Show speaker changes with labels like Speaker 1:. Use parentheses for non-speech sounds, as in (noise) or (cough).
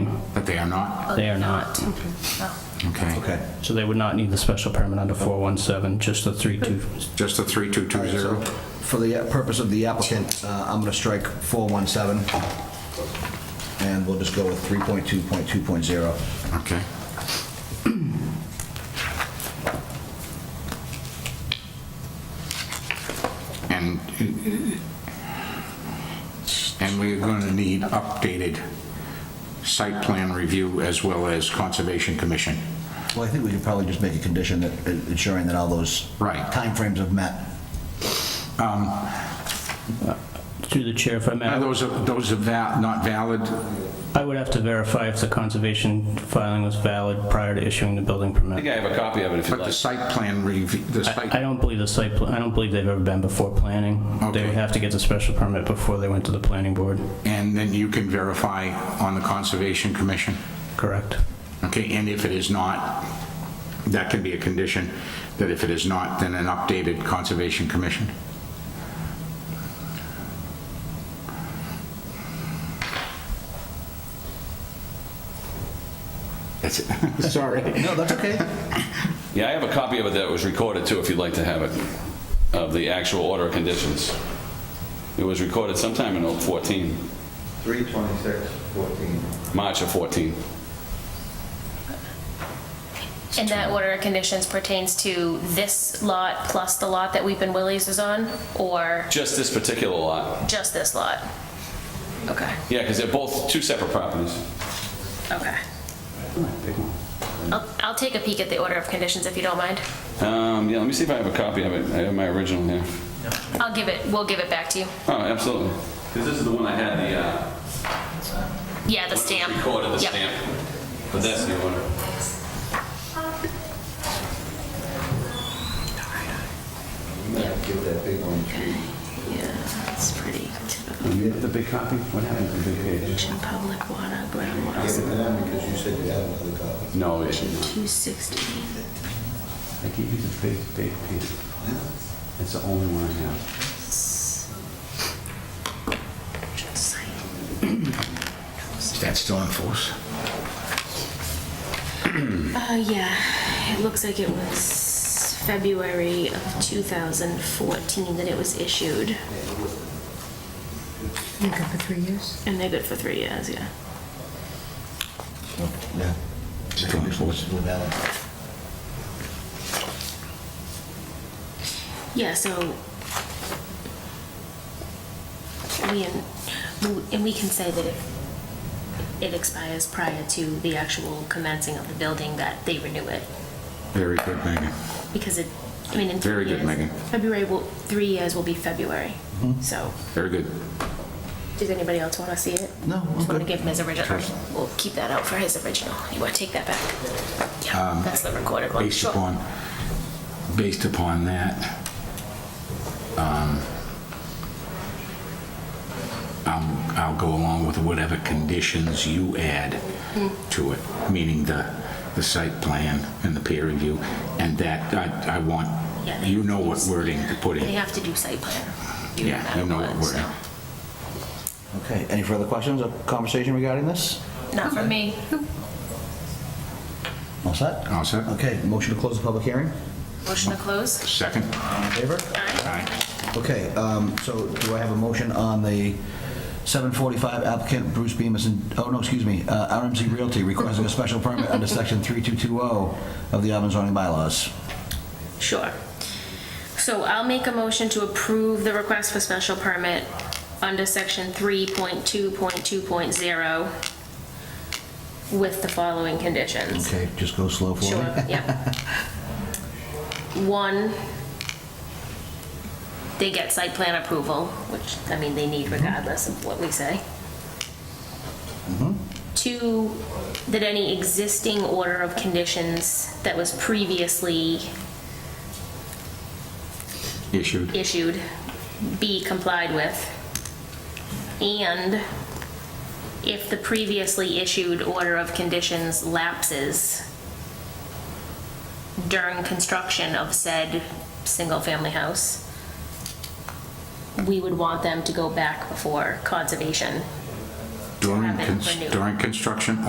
Speaker 1: are not?
Speaker 2: They are not.
Speaker 3: Okay. Oh.
Speaker 1: Okay.
Speaker 4: Okay.
Speaker 2: So they would not need the special permit under 417, just the 32.
Speaker 1: Just the
Speaker 4: All right, so
Speaker 1: 3220?
Speaker 4: For the uh, purpose of the applicant, uh, I'm going to strike 417, and we'll just go with 3.2.2.0.
Speaker 1: Okay. (clears throat) And, uh, and we're going to need updated site plan review as well as Conservation Commission.
Speaker 4: Well, I think we could probably just make a condition that uh, ensuring that all those
Speaker 1: Right.
Speaker 4: timeframes have met.
Speaker 2: Through the chair, if I
Speaker 1: Um, Are
Speaker 2: may,
Speaker 1: those, those are va- not valid?
Speaker 2: I would have to verify if the conservation filing was valid prior to issuing the building
Speaker 5: I think
Speaker 2: permit.
Speaker 5: I have a copy of it if you'd
Speaker 1: But the
Speaker 5: like.
Speaker 1: site plan review, the
Speaker 2: I I
Speaker 1: site,
Speaker 2: don't believe the site, pla- I don't believe they've ever been before planning. They
Speaker 1: Okay.
Speaker 2: would have to get the special permit before they went to the planning board.
Speaker 1: and then you can verify on the Conservation Commission?
Speaker 2: Correct.
Speaker 1: Okay, and if it is not, that can be a condition, that if it is not, then an updated Conservation Commission? That's it. Sorry.
Speaker 4: No, that's okay.
Speaker 5: Yeah, I have a copy of it that was recorded too, if you'd like to have it, of the actual order of conditions. It was recorded sometime in oh 14,
Speaker 6: 326, 14.
Speaker 5: March of 14.
Speaker 3: And that order of conditions pertains to this lot plus the lot that Weep and Willie's is on, or
Speaker 5: Just this particular lot.
Speaker 3: just this lot? Okay,
Speaker 5: Yeah, because they're both two separate properties.
Speaker 3: okay. I'll, I'll take a peek at the order of conditions if you don't mind.
Speaker 5: Um, yeah, let me see if I have a copy of it. I have my original here.
Speaker 3: I'll give it, we'll give it back to you.
Speaker 5: Oh, absolutely. Because this is the one I had the, uh,
Speaker 3: Yeah, the stamp.
Speaker 5: recorded the
Speaker 3: Yep.
Speaker 5: stamp. But that's the order.
Speaker 6: Give that big one three.
Speaker 7: Yeah, it's pretty typical.
Speaker 5: You have the big copy? What happened to the big page?
Speaker 7: Public water,
Speaker 6: Give it to
Speaker 7: groundwater,
Speaker 6: them because you said you had another copy.
Speaker 5: No, it should.
Speaker 7: 260.
Speaker 5: I gave you the big, big page. That's the only one I have.
Speaker 1: Is that still in force?
Speaker 7: Uh, yeah, it looks like it was February of 2014 that it was issued,
Speaker 8: You good for three years?
Speaker 7: and they're good for three years, yeah.
Speaker 4: Yeah.
Speaker 1: Still in force.
Speaker 4: We're valid.
Speaker 7: Yeah, so we, and we can say that if it expires prior to the actual commencing of the building, that they renew it,
Speaker 1: Very good, Megan.
Speaker 7: because it, I mean, in three
Speaker 1: Very
Speaker 7: years.
Speaker 1: good, Megan. Mm-hmm.
Speaker 7: February will, three years will be February, so,
Speaker 1: Very good.
Speaker 7: does anybody else want to see it?
Speaker 4: No, I'm
Speaker 7: Just want to
Speaker 4: good.
Speaker 7: give him his original, we'll keep that out for his original, you want to take that back? Yeah, that's the recorded one,
Speaker 1: Um, Based
Speaker 7: sure.
Speaker 1: upon, based upon that, um, I'm- I'll go along with whatever conditions you add to it, meaning the, the site plan and the peer review, and that, I, I want,
Speaker 7: Yeah.
Speaker 1: you know what wording to put
Speaker 7: They
Speaker 1: in.
Speaker 7: have to do site plan. no
Speaker 1: Yeah,
Speaker 7: matter
Speaker 1: you know what
Speaker 7: so.
Speaker 1: wording.
Speaker 4: Okay, any further questions or conversation regarding this?
Speaker 3: Not for me.
Speaker 4: All set?
Speaker 1: All set.
Speaker 4: Okay, motion to close the public hearing?
Speaker 3: Motion to close?
Speaker 1: Second?
Speaker 4: All in favor?
Speaker 3: Aye.
Speaker 1: Aye.
Speaker 4: Okay, um, so do I have a motion on the 745 applicant Bruce Bemis and, oh, no, excuse me, uh, RMC Realty requesting a special permit under section 3220 of the Auburn zoning bylaws?
Speaker 3: Sure.
Speaker 7: So I'll make a motion to approve the request for special permit under section 3.2.2.0 with the following conditions.
Speaker 4: Okay, just go slow for me.
Speaker 7: Sure, yeah. One, they get site plan approval, which, I mean, they need regardless of what we say. Two, that any existing order of conditions that was previously
Speaker 1: Issued.
Speaker 7: issued be complied with. And if the previously issued order of conditions lapses during construction of said single-family house, we would want them to go back before conservation
Speaker 1: During,
Speaker 7: Have it
Speaker 1: cons-
Speaker 7: renewed.
Speaker 1: during construction